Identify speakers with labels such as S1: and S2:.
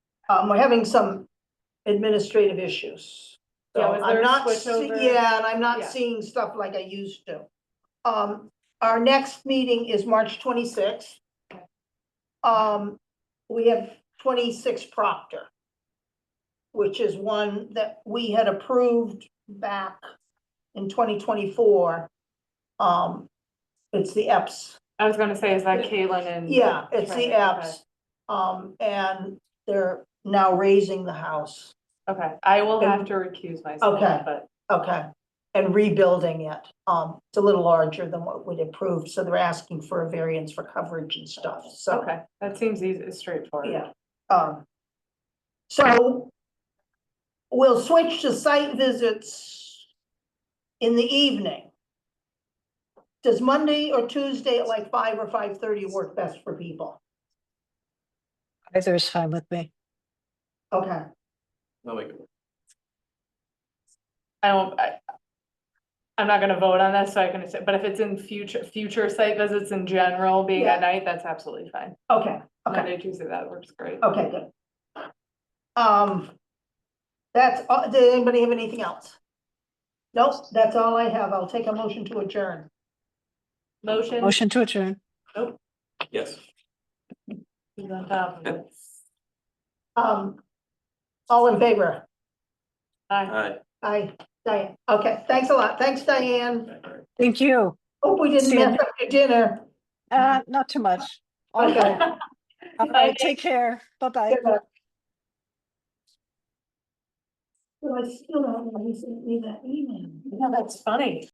S1: Um, we're having some administrative issues. So
S2: Yeah, was there
S1: I'm
S2: a
S1: not,
S2: switch
S1: see-
S2: over?
S1: yeah, and I'm not
S2: Yeah.
S1: seeing stuff like I used to. Um, our next meeting is March twenty-sixth. Um, we have twenty-six Proctor. Which is one that we had approved back in twenty twenty-four. Um, it's the EPS
S2: I was gonna say, is that Caitlin and?
S1: yeah, it's the
S2: Right,
S1: apps. Um, and they're now raising the house,
S2: Okay, Okay. I will have to recuse myself,
S1: Okay.
S2: but
S1: okay, and rebuilding it. Um, it's a little larger than what we'd approved, so they're asking for a variance for coverage and stuff, so,
S2: okay, that seems easy, straightforward.
S1: yeah. Um, so we'll switch to site visits in the evening. Does Monday or Tuesday at like five or five-thirty work best for people?
S3: Either is fine with me.
S1: Okay,
S4: I'll make it work.
S2: I don't, I, I'm not gonna vote on this, so I can, say- but if it's in future, future site visits in general, being
S1: Yeah.
S2: at night, that's absolutely fine.
S1: okay, okay.
S2: Monday, Tuesday, that works great.
S1: Okay, good. Um, that's, all- did anybody have anything else? Nope, that's all I have. I'll take a motion to adjourn.
S2: Motion.
S3: Motion to adjourn.
S4: Yes.
S2: is on top of it.
S1: Um, all in favor?
S2: Aye.
S4: Aye.
S1: Aye, Diane. Okay, thanks a lot. Thanks, Diane.
S3: Thank you.
S1: Hope we didn't
S3: See you.
S1: mess up your dinner.
S3: Uh, not too much. All
S1: Okay.
S3: right. All right, take care. Bye-bye.
S1: Good luck. Well, I still don't know who sent me that email.
S2: Yeah, that's funny.